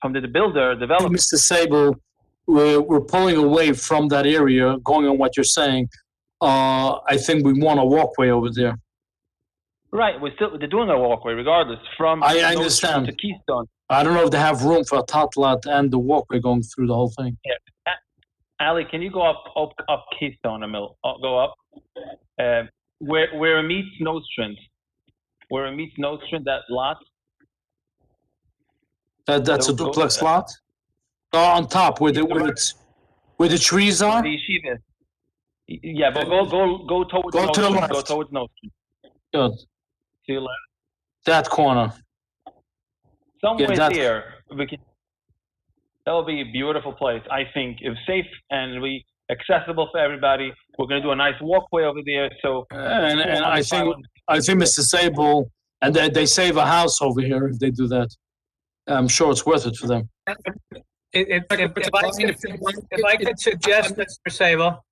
from the builder, developer. Mr. Sable, we're, we're pulling away from that area, going on what you're saying. Uh, I think we want a walkway over there. Right, we're still, they're doing a walkway regardless from. I- I Nose Street understand. To Keystone. I don't know if they have room for a tot lot and the walkway going through the whole thing. Ali, can you go up, up, up Keystone a mill, uh, go up? Uh, where, where it meets Nostrand, where it meets Nostrand, that lot, That, that's a They'll go- duplex lot? Uh, on top where the, Yeah, where it's, where the trees are? the yeshiva. Y- Yeah, but go, go, go towards Go to the Nostrand, go left. towards Nostrand. Good. To your left, That corner. somewhere that's- there, we can, that'll be a beautiful place, I think, if safe and we, accessible for everybody. We're gonna do a nice walkway over there, so. And, and I think, I think Mr. Sable, and they, they save a house over here if they do that. I'm sure it's worth it for them. If, if, if I could, if I could suggest, Mr. Sable.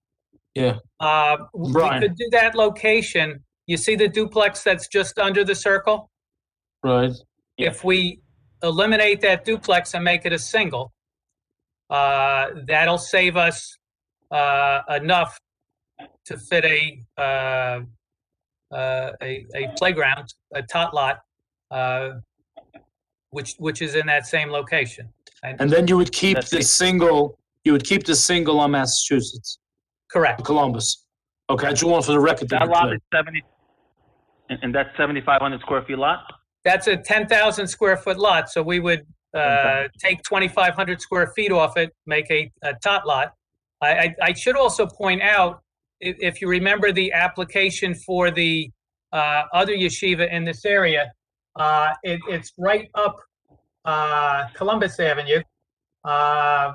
Yeah. Uh, we Brian. could do that location. You see the duplex that's just under the circle? Right, Yeah. If we eliminate that duplex and make it a single, uh, that'll save us, uh, enough to fit a, uh, uh, a, a playground, a tot lot, uh, which, which is in that same location. and then you would keep That's the it. single, you would keep the single on Massachusetts, Correct. Columbus. Okay, I just want for the record. to be That lot clear. is seventy, and, and that's seventy-five hundred square feet lot? That's a 10,000 square foot lot, so we would uh, take 2,500 square feet off it, make a a tot lot. I, I- I should also point out, i- if you remember the application for the uh, other yeshiva in this area, uh, it- it's right up uh, Columbus Avenue. Uh,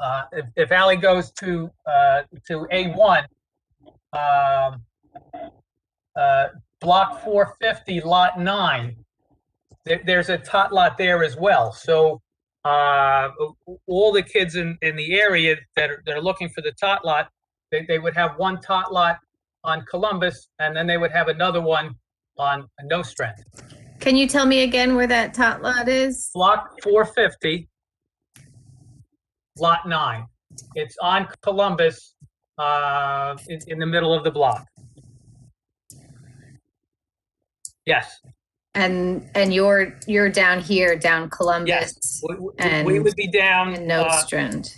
uh, If if Ally goes to, uh, to A1, um, uh, block 450, lot 9. There, there's a tot lot there as well. So uh, all the kids in, in the area that are, that are looking for the tot lot, they, they would have one tot lot on Columbus, and then they would have another one on Nostrand. Can you tell me again where that tot lot is? Block 450, lot 9. It's on Columbus, uh, in, in the middle of the block. Yes. And, and you're, you're down here, down Columbus We- we- We And- would be down, and uh, Nostrand.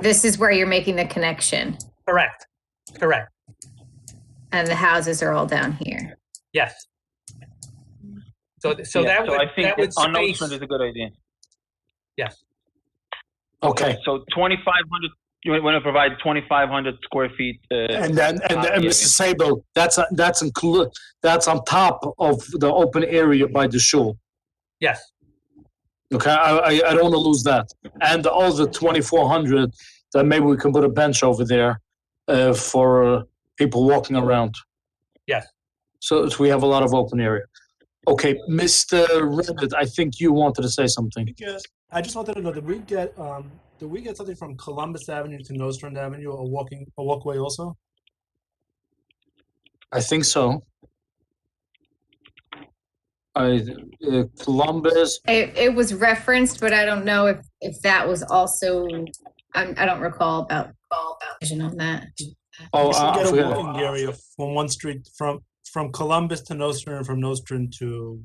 This is where you're making the connection correct, correct, and the houses are all down here. yes. So, th- so Yeah, that would, I think that would On Ocean space, is a good idea. yes, Okay, So twenty-five hundred, you want to provide twenty-five hundred square feet, uh, and then, and then, Yeah. Mr. Sable, that's, that's inclu, that's on top of the open area by the shul. yes, Okay, I, I, I don't want to lose that. And all the 2,400, then maybe we can put a bench over there uh, for uh, people walking around. Yes. So so we have a lot of open area. Okay, Mr. Rabbit, I think you wanted to say something. Because I just wanted to know, did we get um did we get something from Columbus Avenue to Nostrand Avenue, a walking a walkway also? I think so. I, uh, Columbus, It, it was referenced, but I don't know if, if that was also, I'm, I don't recall about, all about vision on that. oh, Uh, we should I I get a forgot. walking area from one street from from Columbus to Nostrand and from Nostrand to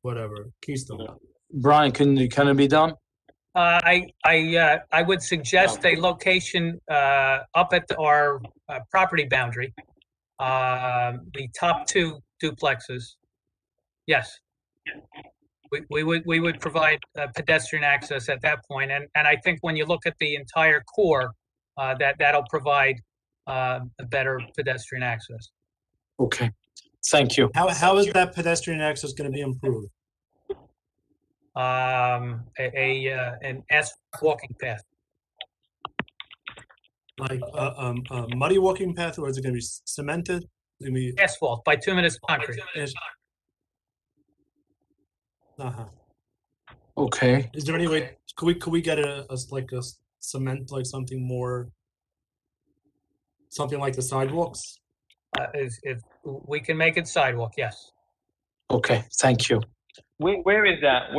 whatever, Keystone. Brian, can, can it be done? uh, I, I, uh, I would suggest a location, uh, up at our, uh, property boundary. Um the top two duplexes, yes. We, we would, we would provide uh, pedestrian access at that point, and, and I think when you look at the entire core, uh, that, that'll provide, uh, a better pedestrian access. Okay, thank you. How how is that pedestrian access gonna be improved? um, a, a uh, an S walking path. Like a um a muddy walking path or is it gonna be c- cemented? I mean, Asphalt, bituminous concrete. is, uh-huh. Okay, Is there any way, could we, could we get a, a s- like a s- cement, like something more? Something like the sidewalks? Uh, if, if we can make it sidewalk, yes. okay, thank you. Where, where is that?